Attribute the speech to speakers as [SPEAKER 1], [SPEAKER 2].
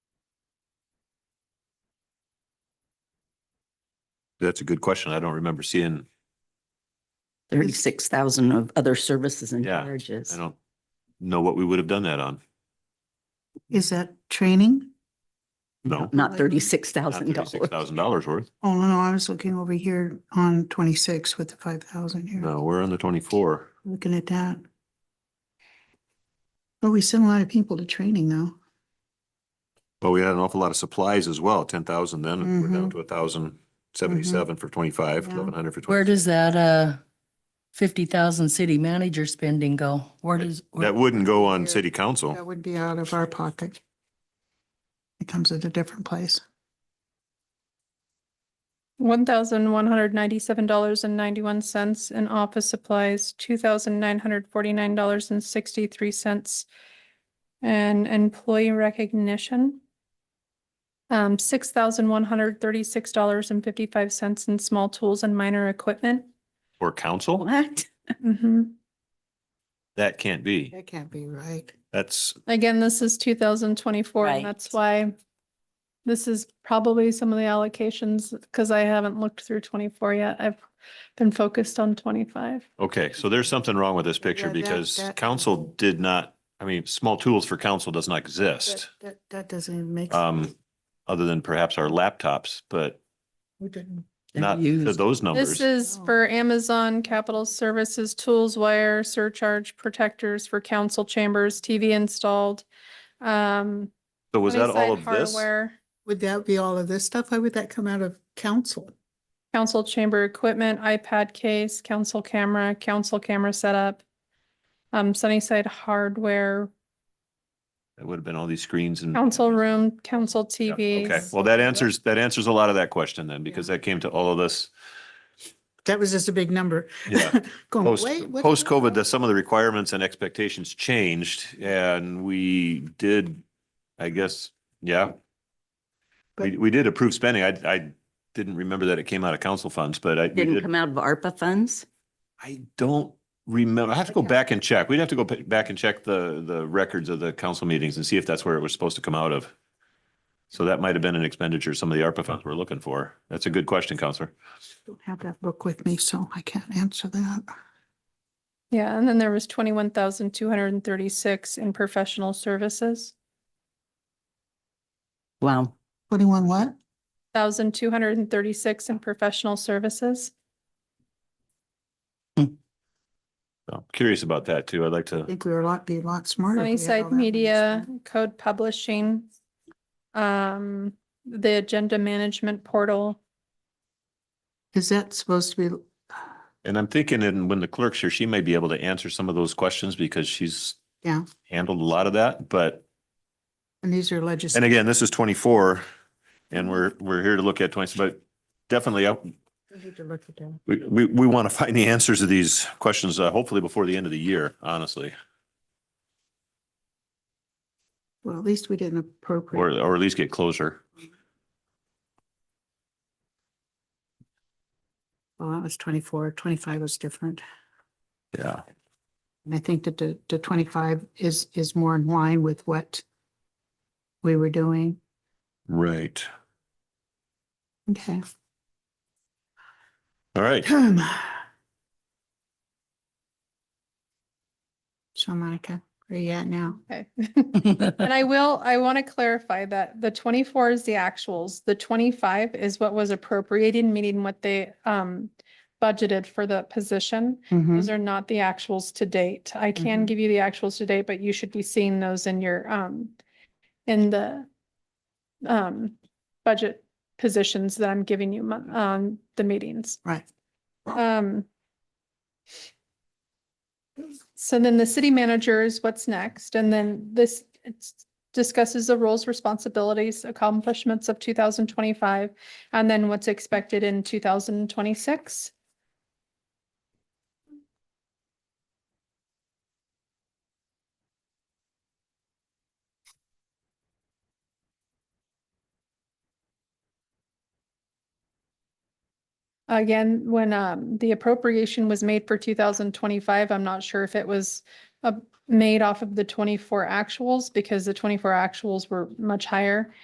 [SPEAKER 1] That's a good question. I don't remember seeing,
[SPEAKER 2] Thirty-six thousand of other services and
[SPEAKER 1] Yeah,
[SPEAKER 2] charges.
[SPEAKER 1] I don't know what we would have done that on.
[SPEAKER 3] Is that training?
[SPEAKER 1] No.
[SPEAKER 2] Not thirty-six thousand
[SPEAKER 1] Thirty-six
[SPEAKER 2] dollars.
[SPEAKER 1] thousand dollars worth.
[SPEAKER 3] Oh, no, no, I was looking over here on twenty-six with the five thousand here,
[SPEAKER 1] No, we're on the twenty-four.
[SPEAKER 3] looking at that. Well, we send a lot of people to training though.
[SPEAKER 1] But we had an awful lot of supplies as well, ten thousand then, and we're down
[SPEAKER 3] Mhm.
[SPEAKER 1] to a thousand seventy-seven for twenty-five,
[SPEAKER 3] Yeah.
[SPEAKER 1] eleven hundred for
[SPEAKER 4] Where
[SPEAKER 1] twenty.
[SPEAKER 4] does that, uh, fifty thousand city manager spending go? Where does?
[SPEAKER 1] That wouldn't go on
[SPEAKER 3] Here.
[SPEAKER 1] city council.
[SPEAKER 3] That would be out of our pocket. It comes at a different place.
[SPEAKER 5] One thousand one hundred ninety-seven dollars and ninety-one cents in office supplies, two thousand nine hundred forty-nine dollars and sixty-three cents. And employee recognition. Um, six thousand one hundred thirty-six dollars and fifty-five cents in small tools and minor equipment.
[SPEAKER 1] Or council?
[SPEAKER 2] What?
[SPEAKER 5] Mhm.
[SPEAKER 1] That can't be.
[SPEAKER 3] That can't be right.
[SPEAKER 1] That's,
[SPEAKER 5] Again, this is two thousand twenty-four,
[SPEAKER 2] Right.
[SPEAKER 5] and that's why this is probably some of the allocations, because I haven't looked through twenty-four yet. I've been focused on twenty-five.
[SPEAKER 1] okay, so there's something wrong with this picture
[SPEAKER 3] Yeah, that-
[SPEAKER 1] because
[SPEAKER 3] that-
[SPEAKER 1] council did not, I mean, small tools for council does not
[SPEAKER 3] That,
[SPEAKER 1] exist.
[SPEAKER 3] that, that doesn't even make.
[SPEAKER 1] Um, other than perhaps our laptops, but
[SPEAKER 3] We didn't.
[SPEAKER 2] They're
[SPEAKER 1] not to
[SPEAKER 2] used.
[SPEAKER 1] those
[SPEAKER 5] This
[SPEAKER 1] numbers.
[SPEAKER 5] is
[SPEAKER 3] Oh.
[SPEAKER 5] for Amazon Capital Services Tools Wire Surcharge Protectors for council chambers, TV installed. Um.
[SPEAKER 1] So was that all
[SPEAKER 5] Sunnyside
[SPEAKER 1] of this?
[SPEAKER 5] Hardware,
[SPEAKER 3] Would that be all of this stuff? Why would that come out of council?
[SPEAKER 5] Council chamber equipment, iPad case, council camera, council camera setup. Um, Sunnyside Hardware,
[SPEAKER 1] It would have been all these screens and.
[SPEAKER 5] council room, council
[SPEAKER 1] Mm. Yeah, Okay,
[SPEAKER 5] TVs.
[SPEAKER 1] well, that answers, that answers a lot of that question then, because that came to all of this.
[SPEAKER 3] That was just a big number.
[SPEAKER 1] Yeah.
[SPEAKER 3] Going,
[SPEAKER 1] Post,
[SPEAKER 3] wait, what-
[SPEAKER 1] post COVID, the, some of the requirements and expectations changed and we did, I guess, yeah. We,
[SPEAKER 3] But-
[SPEAKER 1] we did approve spending. I, I didn't remember that it came out of council funds, but I, we
[SPEAKER 2] Didn't
[SPEAKER 1] did,
[SPEAKER 2] come out of ARPA funds?
[SPEAKER 1] I don't remember. I have to go back and check. We'd have to go pa- back and check the, the records of the council meetings and see if that's where it was supposed to come out of. So that might have been an expenditure some of the ARPA funds we're looking for. That's a good question, Counselor.
[SPEAKER 3] Don't have that book with me, so I can't answer that.
[SPEAKER 5] Yeah, and then there was twenty-one thousand two hundred and thirty-six in professional services,
[SPEAKER 2] Wow.
[SPEAKER 3] Twenty-one what?
[SPEAKER 5] thousand two hundred and thirty-six in professional services.
[SPEAKER 1] So I'm Curious about that too. I'd like
[SPEAKER 3] I
[SPEAKER 1] to,
[SPEAKER 3] think we were a lot, be a lot smarter. if we had all
[SPEAKER 5] Sunnyside
[SPEAKER 3] that
[SPEAKER 5] Media,
[SPEAKER 3] information.
[SPEAKER 5] Code Publishing, um, the Agenda Management Portal.
[SPEAKER 3] Is that supposed to be,
[SPEAKER 1] and I'm thinking, and when the clerk's here, she may be able to answer some of those questions because she's
[SPEAKER 3] Yeah.
[SPEAKER 1] handled a lot of that, but,
[SPEAKER 3] and these are
[SPEAKER 1] and
[SPEAKER 3] legislative,
[SPEAKER 1] again, this is twenty-four and we're, we're here to look at twenty, but definitely, I-
[SPEAKER 3] we need to look at them.
[SPEAKER 1] we, we, we want to find the answers to these questions, uh, hopefully before the end of the year, honestly,
[SPEAKER 3] Well, at least we didn't
[SPEAKER 1] or,
[SPEAKER 3] appropriate.
[SPEAKER 1] or at least get closer.
[SPEAKER 3] Well, that was twenty-four, twenty-five was different.
[SPEAKER 1] Yeah.
[SPEAKER 3] And I think that the, the twenty-five is, is more in line with what we were doing.
[SPEAKER 1] Right.
[SPEAKER 3] Okay.
[SPEAKER 1] All right.
[SPEAKER 3] So Monica, where are you at now?
[SPEAKER 5] Okay. And I will, I want to clarify that the twenty-four is the actuals. The twenty-five is what was appropriated, meaning what they, um, budgeted for the position.
[SPEAKER 3] Mhm.
[SPEAKER 1] Mm-hmm.
[SPEAKER 5] Those are not the actuals to date. I can
[SPEAKER 3] Mhm.
[SPEAKER 5] give you the actuals to date, but you should be seeing those in your, um, in the um, budget positions that I'm giving you mon- on the meetings.
[SPEAKER 3] Right.
[SPEAKER 5] Um. So then the city manager is what's next, and then this it's- discusses the roles, responsibilities, accomplishments of two thousand twenty-five, and then what's expected in two thousand twenty-six. Again, when um the appropriation was made for two thousand twenty-five, I'm not sure if it was uh made off of the twenty-four actuals because the twenty-four actuals were much higher.